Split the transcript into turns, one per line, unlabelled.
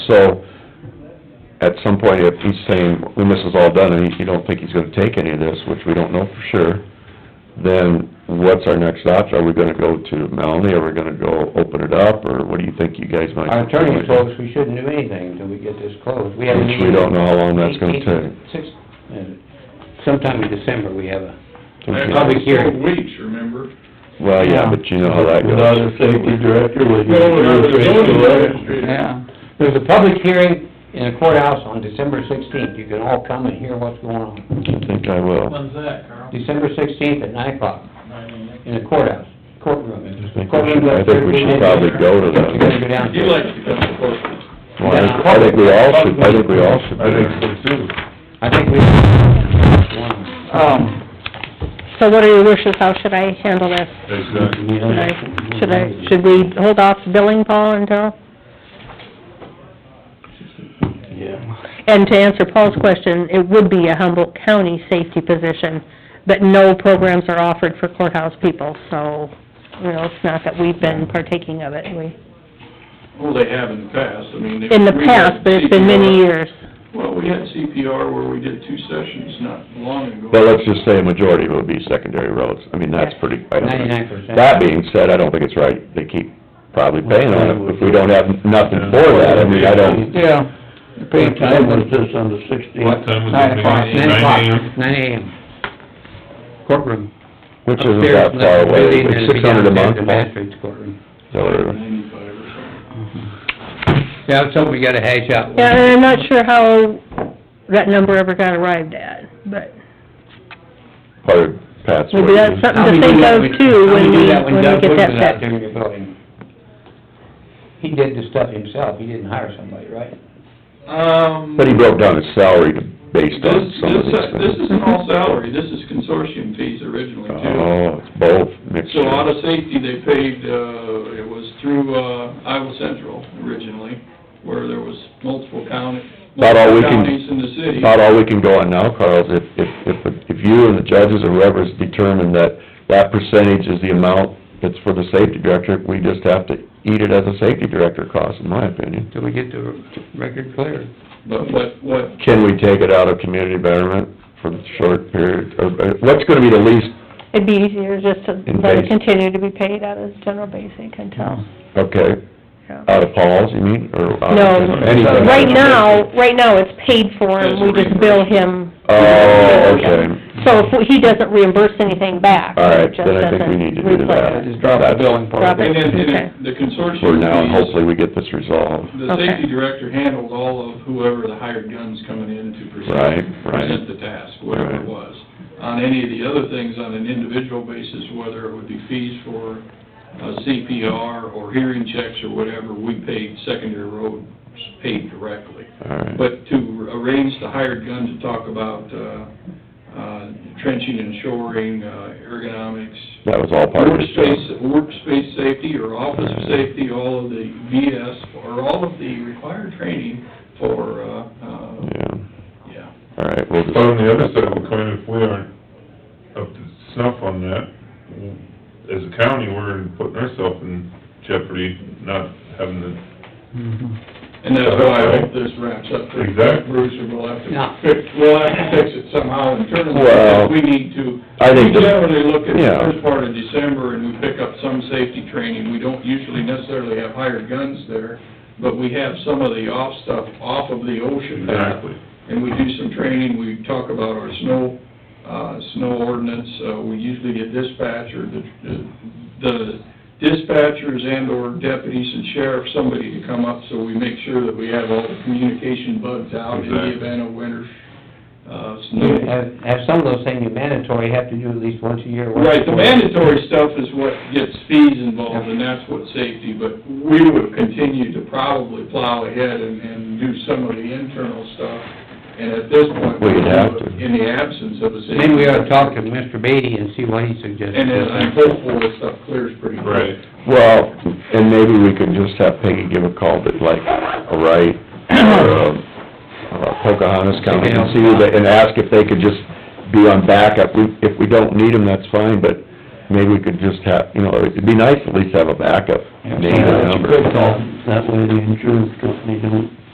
So, at some point, if he's saying, when this is all done, and you don't think he's gonna take any of this, which we don't know for sure, then what's our next option? Are we gonna go to Melanie, are we gonna go open it up, or what do you think you guys might?
Our attorney told us we shouldn't do anything until we get this closed. We have a
Which we
meeting-
don't know how long that's gonna
Eight-
take.
Six, uh, sometime in December, we have a,
Okay.
Public hearing.
Four weeks, remember?
Well, yeah, but you know how that goes.
Without a safety director, would you?
Well, without a zoning administrator.
Yeah.
there's a public hearing in the courthouse on December sixteenth. You can all come and hear what's going on.
I think I will.
When's that, Carl?
December sixteenth at nine o'clock
Nine
in the courthouse, courtroom.
I think we should- I think we should probably go to
You gotta go
that.
down.
a.m. You like to become a corporate.
Well, I I think we all should, I think we all should. be
I think
there.
so too.
I think we...
Uh,
Um,
So what are your wishes, how should I handle this?
exactly.
Should I, should I, should we hold off billing Paul until,
Yeah.
and to answer Paul's question, it would be a Humboldt County safety position, but no programs are offered for courthouse people, so, you know, it's not that we've been partaking of it, we,
Well, they have in the past, I mean. they-
in the
we had
past, but it's been many
CPR.
years.
Well, we had CPR where we did two sessions not long ago.
Well, let's just say a majority would be secondary roads. I mean, that's pretty, I don't think-
Ninety-nine percent.
That being said, I don't think it's right, they keep probably paying on it, if we don't have nothing for that, I mean, I don't,
Yeah.
What time was
this on the sixteenth? What time was
Nine
it?
o'clock, nine
AM?
o'clock, nine AM. Courtroom.
which isn't that far away, it's six hundred a month,
The magistrate's courtroom.
or,
Ninety-five or something.
Yeah, that's something we gotta hash out.
Yeah, and I'm not sure how that number ever got arrived at, but
part of Pat's
maybe that's
wages.
How we
something to
do
think
that
of
when-
too,
how
when we,
do that
when we
Doug
get
Wood
that
was out
set.
there in your building? He did the stuff himself, he didn't hire somebody, right?
Um.
But he broke down his salary to, based
This,
on some of these
this, this
things.
isn't all salary, this is consortium fees originally too.
Oh, it's both, mixed.
So out of safety, they paid, uh, it was through, uh, Iowa Central originally, where there was multiple county,
About all we
multiple
can-
counties in the city.
About all we can go on now, Carl, is if, if, if- if you and the judges or whoever's determined that that percentage is the amount that's for the safety director, we just have to eat it as a safety director cost, in my opinion.
Till we get the record clear.
But what, what
Can we take it out of community betterment for the short period, or, or what's gonna be the least
It'd be easier just to
In
let
base.
it continue to be paid out of general basic until,
Okay,
yeah.
out of Paul's, you mean, or out
No,
Uh, of anything?
right now, right now it's paid for and we just bill him.
Oh, okay.
So if he doesn't reimburse anything back,
All right,
it just
then I think we
doesn't
need to do that.
replace it.
Just drop the billing part.
Drop
And
it.
then, and
Okay.
then the consortium.
For now, and
fees,
hopefully we get this resolved.
The
Okay.
safety director handles all of whoever the hired gun's coming in to
Right,
present,
right.
present the task, whatever
Right.
it was. On any of the other things, on an individual basis, whether it would be fees for uh, CPR or hearing checks or whatever, we paid secondary roads, paid directly.
All right.
But to arrange the hired gun to talk about uh, uh, trenching and shoring, uh, ergonomics,
That was all part of his job.
Workspace, workspace safety or office
Right.
safety, all of the BS, or all of the required training for, uh, uh,
Yeah,
yeah.
all right, we'll just...
But on the other side of the coin, if we aren't up to snuff on that, as a county, we're putting ourselves in jeopardy, not having the
And that's why I hope this wraps up.
Exactly.
Bruce, and we'll have
Yeah.
to fix, we'll have to fix it somehow internally,
Well,
because we need to.
I think
We
the-
generally look at the
Yeah.
first part of December and we pick up some safety training. We don't usually necessarily have hired guns there, but we have some of the off stuff off of the ocean.
Exactly.
and we do some training, we talk about our snow, uh, snow ordinance, uh, we usually get dispatcher, the, the dispatchers and or deputies and sheriff, somebody to come up, so we make sure that we have all the communication bugs out in the
Exactly.
event of winter, uh,
You
snow.
have, have some of those things you're mandatory, you have to do at least once a year. once
Right, the
a quarter.
mandatory stuff is what gets fees involved, and that's what safety, but we would continue to probably plow ahead and, and do some of the internal stuff, and at this point.
We'd have to.
In the absence of a safety.
Maybe we ought to talk to Mr. Beatty and see what he suggests.
And then I'm hopeful this stuff clears pretty quick.
Right.
Well, and maybe we could just have Peggy give a call, but like, a right, or, um, uh, Pocahontas County, and see, who they- and ask if they could just be on backup. We- If we don't need them, that's fine, but maybe we could just have, you know, it'd be nice at least to have a backup. name and number.
That way the insurance company don't